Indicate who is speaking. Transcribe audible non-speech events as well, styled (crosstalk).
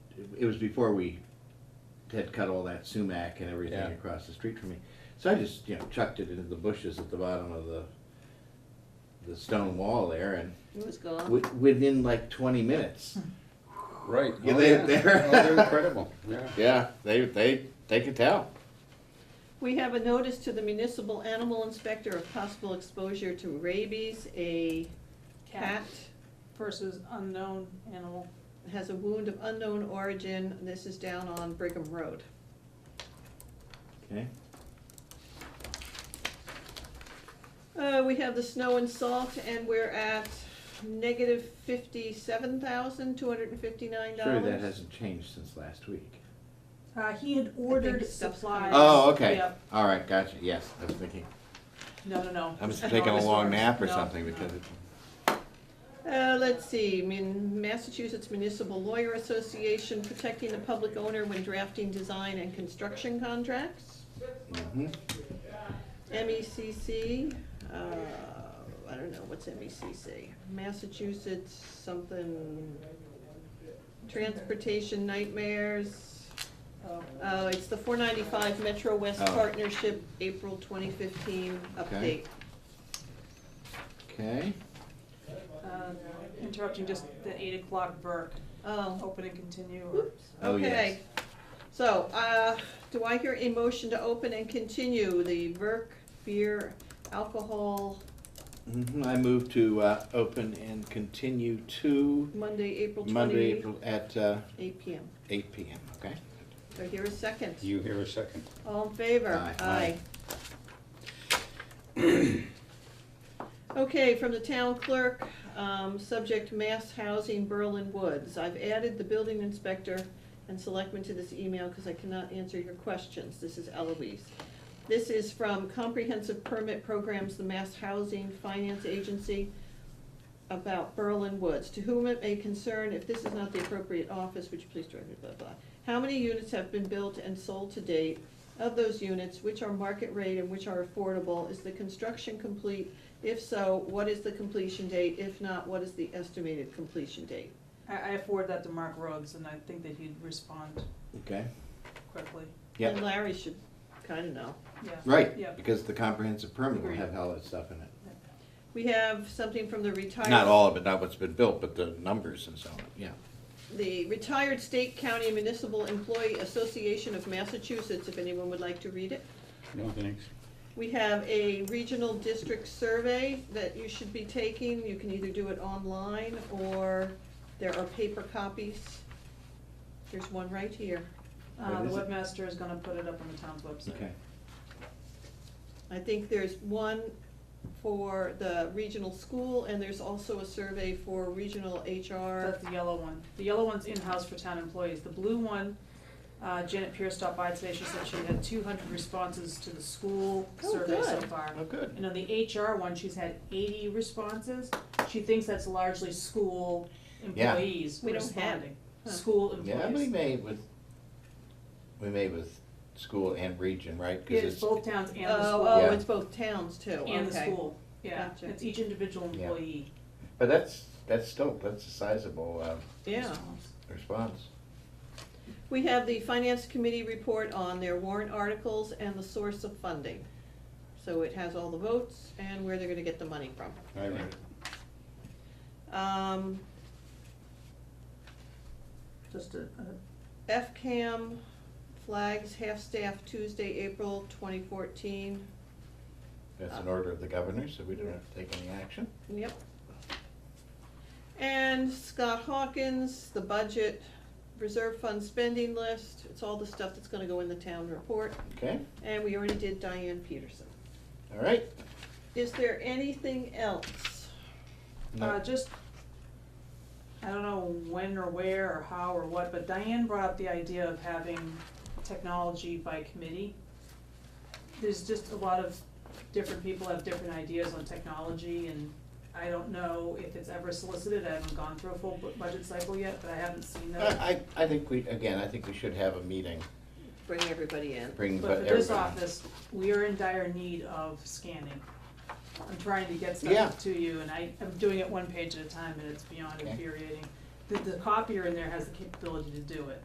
Speaker 1: it was before we had cut all that sumac and
Speaker 2: Yeah.
Speaker 1: everything across the street from me. So I just, you know, chucked it into the bushes at the bottom of the, the stone wall there and
Speaker 3: It was gone.
Speaker 1: wi- within like twenty minutes.
Speaker 4: Hmm.
Speaker 2: Right.
Speaker 1: Yeah,
Speaker 2: Oh,
Speaker 1: they-
Speaker 2: yeah.
Speaker 1: they're-
Speaker 2: Oh, (laughs) they're incredible, yeah.
Speaker 1: Yeah, they, they, they could tell.
Speaker 3: We have a notice to the municipal animal inspector of possible exposure to rabies. A cat
Speaker 4: versus unknown animal.
Speaker 3: has a wound of unknown origin. This is down on Brigham Road.
Speaker 1: Okay.
Speaker 3: Uh, we have the snow and salt and we're at negative fifty-seven thousand, two hundred and fifty-nine dollars.
Speaker 1: Surely that hasn't changed since last week.
Speaker 4: Uh, he had ordered
Speaker 3: it's stuff's coming.
Speaker 4: supplies.
Speaker 1: Oh, okay,
Speaker 4: Yep.
Speaker 1: all right, gotcha, yes, I was thinking,
Speaker 4: No, no, no.
Speaker 1: I was
Speaker 4: (laughs) No,
Speaker 1: taking a
Speaker 4: this
Speaker 1: long
Speaker 4: one.
Speaker 1: nap or
Speaker 4: No,
Speaker 1: something
Speaker 4: no.
Speaker 1: because it.
Speaker 3: Uh, let's see, I mean, Massachusetts Municipal Lawyer Association protecting the public owner when drafting design and construction contracts.
Speaker 1: mhm.
Speaker 3: MECC, E uh, I don't know, what's MECC? Massachusetts something, Transportation Nightmares.
Speaker 4: Oh.
Speaker 3: Uh, it's the four ninety-five Metro West
Speaker 1: Oh.
Speaker 3: Partnership, April twenty fifteen
Speaker 1: Okay.
Speaker 3: update.
Speaker 1: Okay,
Speaker 4: Uh, Interrupting just the eight o'clock Burke,
Speaker 3: Oh,
Speaker 4: open and continue. or-
Speaker 3: Oops.
Speaker 1: Oh, yes.
Speaker 3: Okay. So, uh, do I hear a motion to open and continue the Verk beer alcohol
Speaker 1: Mhm, I move to, uh, open and continue to
Speaker 3: Monday, April
Speaker 1: Monday, April,
Speaker 3: twenty,
Speaker 1: at, uh,
Speaker 3: eight P M.
Speaker 1: eight P M, okay?
Speaker 3: Do I hear a second?
Speaker 2: You hear a second.
Speaker 3: All in favor?
Speaker 1: Aye.
Speaker 3: Okay, from the town clerk, um, subject mass housing Berlin Woods. I've added the building inspector and selectmen to this email because I cannot answer your questions. This is Eloise. This is from Comprehensive Permit Programs, the Mass Housing Finance Agency about Berlin Woods. To whom it may concern, if this is not the appropriate office, would you please direct me, blah, blah. How many units have been built and sold to date? Of those units, which are market rate and which are affordable? Is the construction complete? If so, what is the completion date? If not, what is the estimated completion date?
Speaker 4: I, I forwarded that to Mark Rhodes and I think that he'd respond
Speaker 1: Okay,
Speaker 4: quickly,
Speaker 1: Yep.
Speaker 3: And Larry should kinda know.
Speaker 4: yeah.
Speaker 1: right,
Speaker 4: Yep.
Speaker 1: because the comprehensive permit will
Speaker 4: Agreed.
Speaker 1: have all that stuff in it.
Speaker 3: We have something from the retired.
Speaker 1: Not all of it, not what's been built, but the numbers and so on, yeah.
Speaker 3: The Retired State County Municipal Employee Association of Massachusetts, if anyone would like to read it.
Speaker 2: No, thanks.
Speaker 3: We have a regional district survey that you should be taking. You can either do it online or there are paper copies. There's one right here.
Speaker 4: Uh,
Speaker 1: What
Speaker 4: the
Speaker 1: is it?
Speaker 4: webmaster is gonna put it up on the town's website.
Speaker 1: Okay,
Speaker 3: I think there's one for the regional school and there's also a survey for regional HR.
Speaker 4: That's the yellow one. The yellow one's in-house for town employees. The blue one, uh, Janet Pierce stopped by today, she said she had two hundred responses to the school
Speaker 3: Oh,
Speaker 4: survey so
Speaker 3: good.
Speaker 4: far.
Speaker 1: oh, good,
Speaker 4: And on the HR one, she's had eighty responses. She thinks that's largely school
Speaker 1: Yeah.
Speaker 4: employees
Speaker 3: We don't have-
Speaker 4: responding.
Speaker 3: huh.
Speaker 4: School
Speaker 1: yeah, we
Speaker 4: employees.
Speaker 1: made with, we made with school and region, right? 'Cause
Speaker 4: It's both towns and the
Speaker 3: Oh,
Speaker 4: school.
Speaker 3: oh,
Speaker 1: Yeah.
Speaker 3: it's both towns too,
Speaker 4: And the
Speaker 3: okay.
Speaker 4: school, yeah.
Speaker 3: Gotcha.
Speaker 4: It's each individual
Speaker 1: Yeah.
Speaker 4: employee.
Speaker 1: But that's, that's still, that's a sizable, um,
Speaker 3: Yeah.
Speaker 1: response.
Speaker 3: We have the finance committee report on their warrant articles and the source of funding. So it has all the votes and where they're gonna get the money from.
Speaker 2: I read it.
Speaker 3: Um,
Speaker 4: Just a,
Speaker 3: FCAM flags half-staff Tuesday, April twenty fourteen.
Speaker 1: That's an order of the governor, so we don't have to take any action.
Speaker 3: Yep. And Scott Hawkins, the budget, reserve fund spending list, it's all the stuff that's gonna go in the town report.
Speaker 1: Okay,
Speaker 3: And we already did Diane Peterson.
Speaker 1: all right.
Speaker 3: Is there anything else?
Speaker 1: No.
Speaker 4: Uh, just, I don't know when or where or how or what, but Diane brought up the idea of having technology by committee. There's just a lot of different people have different ideas on technology and I don't know if it's ever solicited, I haven't gone through a full bu- budget cycle yet, but I haven't seen that.
Speaker 1: I, I I think we, again, I think we should have a meeting,
Speaker 3: Bring everybody in.
Speaker 1: bring
Speaker 4: But
Speaker 1: but
Speaker 4: for this
Speaker 1: everybody.
Speaker 4: office, we are in dire need of scanning. I'm trying to get
Speaker 1: Yeah.
Speaker 4: stuff to you, and I, I'm doing it one page at a time, and it's beyond
Speaker 1: Okay.
Speaker 4: infuriating. The, the copier in there has the capability to do it,